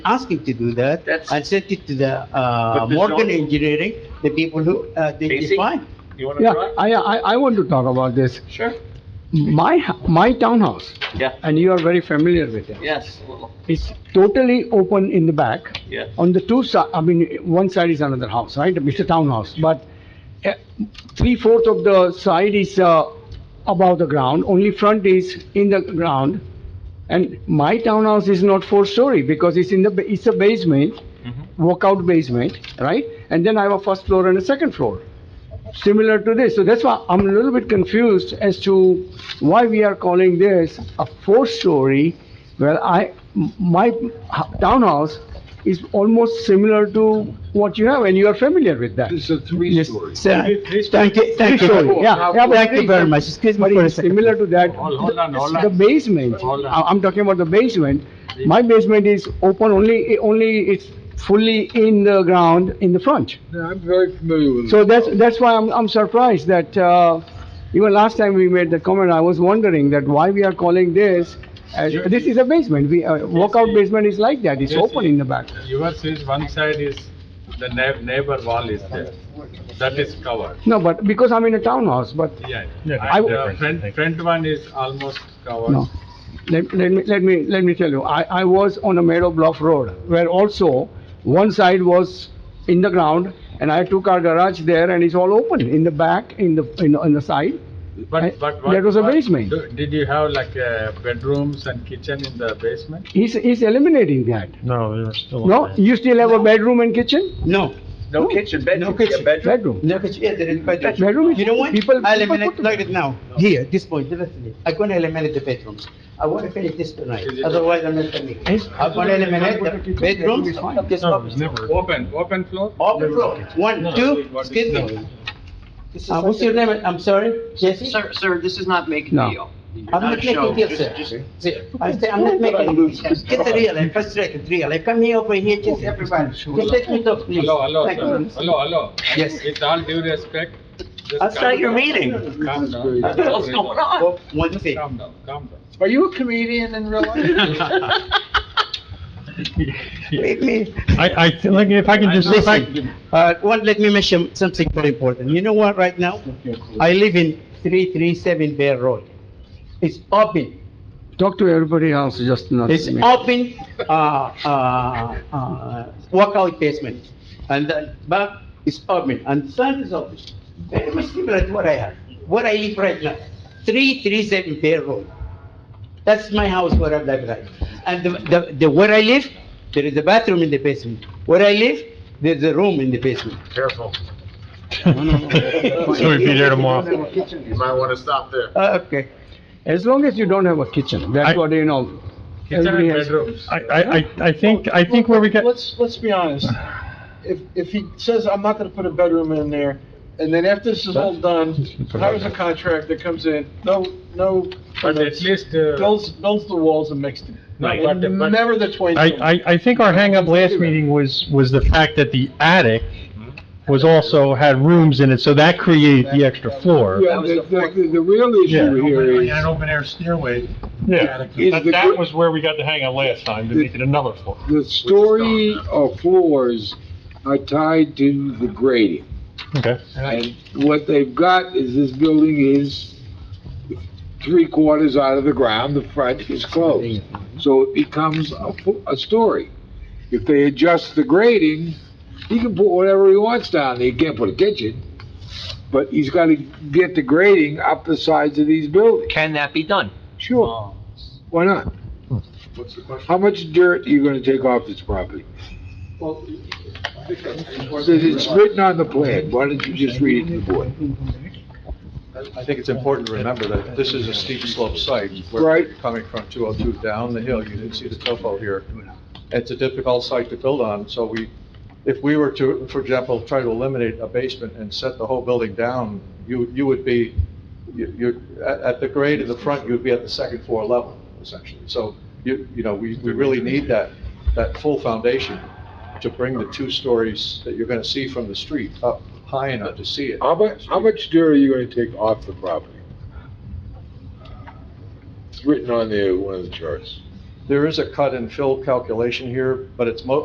asked him to do that That's- and sent it to the, uh, But the Morgan zoning- Engineering, the people who, uh, they Basic? define. You want Yeah, to try? I, I, I want to talk about this. Sure. My, h- my townhouse, Yeah, and you are very familiar with it, yes, well, it's totally open in the back. yeah. On the two side, I mean, one side is another house, right? It's a townhouse, but three fourth of the side is, uh, above the ground, only front is in the ground. And my townhouse is not four story because it's in the, ba- it's a basement, Mhm. walkout basement, right? And then I have a first floor and a second floor, similar to this. So that's why I'm a little bit confused as to why we are calling this a four-story, where I, m- my h- townhouse is almost similar to what you have, and you are familiar with that. It's a three-story. So, uh, thank you, thank you. Three-story, yeah, yeah, but Thank you very much. Excuse me But for a it's second. similar to that. Hold- hold on, hold on. The basement, Hold on. I- I'm talking about the basement. My basement is open only, only it's fully in the ground in the front. Yeah, I'm very familiar with it. So that's, that's why I'm, I'm surprised that, uh, even last time we made the comment, I was wondering that why we are calling this as, this is a basement, we, uh, walkout basement is like that, it's Yes, open in the back. Yours is, one side is, the neigh- neighbor wall is there, that is covered, No, but because I'm in a townhouse, but, yeah. I And w- the front, front one is almost covered. no. Let, let me, let me, let me tell you, I, I was on a Meadow Bluff Road where also one side was in the ground and I took our garage there and it's all open in the back, in the, in, the- on the side. I- But, but what? that was a what- basement. do- Did you have like uh, bedrooms and kitchen in the basement? He's, he's eliminating that. No, they were still. No, you still have a bedroom and kitchen? No, No kitchen, bedroom, No kitchen. yeah, bedroom. Bedroom. no, but yeah, there is bedroom. Bedroom is- You know what? people- I'll people eliminate, put- like it now, here, this point, definitely. I'm gonna eliminate the bedrooms. I wanna finish this tonight, otherwise I'm not coming. Yes. I'm gonna eliminate the bedrooms. Bedroom is fine. this No, office. never. Open, open floor? Open floor, one, two, excuse me. Uh, what's your name, I'm sorry, Jesse? Sir, sir, this is not making No. deal. You're I'm a not making show. deals, Just- sir. just- Sir, I'm saying, I'm not making deals. Get the real, eh, I'm frustrated, real. I come here over here, just everybody. Just let me talk, please. Hello, hello, Thank sir, you. hello, hello. Yes. With all due respect. just I'll start calm your down. meeting. Calm This is down. great. Calm What's down. going on? One thing. Calm down, calm down. Are you a comedian in real life? Wait, me. I, I, like, if I can just, if I, Listen, uh, one, let me mention something very important. You know what, right now? I live in three three seven Bear Road. It's open. Talk to everybody else, just not It's me. open, uh, uh, uh, workout basement, and the back is open, and the front is open. Very much similar to what I have, what I live right now, three, three, seven Bear Road. That's my house where I live right. And the, the, the, where I live, there is a bathroom in the basement. Where I live, there's a room in the basement. careful. So we'd be there tomorrow. You might want to stop there. Uh, Okay. As long as you don't have a kitchen, that's I- what, you know, Kitchen Everybody and has- bedrooms. I, I, I- I think, I think where we get, Let's, let's be honest. If, if he says, I'm not gonna put a bedroom in there, and then after this is all done, hires a contractor, comes in, no, no. But at least, uh, Builds, builds the walls and makes them. Right, but- but- Never the twenty. I, I, I think our hangup last meeting was, was the fact that the attic was also, had rooms in it, so that created the extra floor. Yeah, the, the, the real issue here is, open air stairway. Yeah, Is that, the- that was where we got the hangup last time, to make it another floor. the story of floors are tied to the grading. Okay. And what they've got is this building is three quarters out of the ground, the front is closed. So it becomes a, fo- a story. If they adjust the grading, he can put whatever he wants down there. He can't put a kitchen, but he's gotta get the grading up the sides of these buildings. Can that be done? Oh. Sure. Why not? What's the question? How much dirt are you gonna take off this property? It says It's written on the plan. Why don't you just read it to the board? I think it's important to remember that this is a steep slope site. where Right. you're Coming from 202 down the hill, you didn't see the topo here. It's a difficult site to build on, so we, if we were to, for example, try to eliminate a basement and set the whole building down, you, you would be, you- you're, at, at the grade in the front, you'd be at the second floor level, essentially. So you, you know, we, we really need that, that full foundation to bring the two stories that you're going to see from the street up high enough to see it. How much, how much dirt are you gonna take off the property? It's written on the, one of the charts. There is a cut and fill calculation here, but it's mo,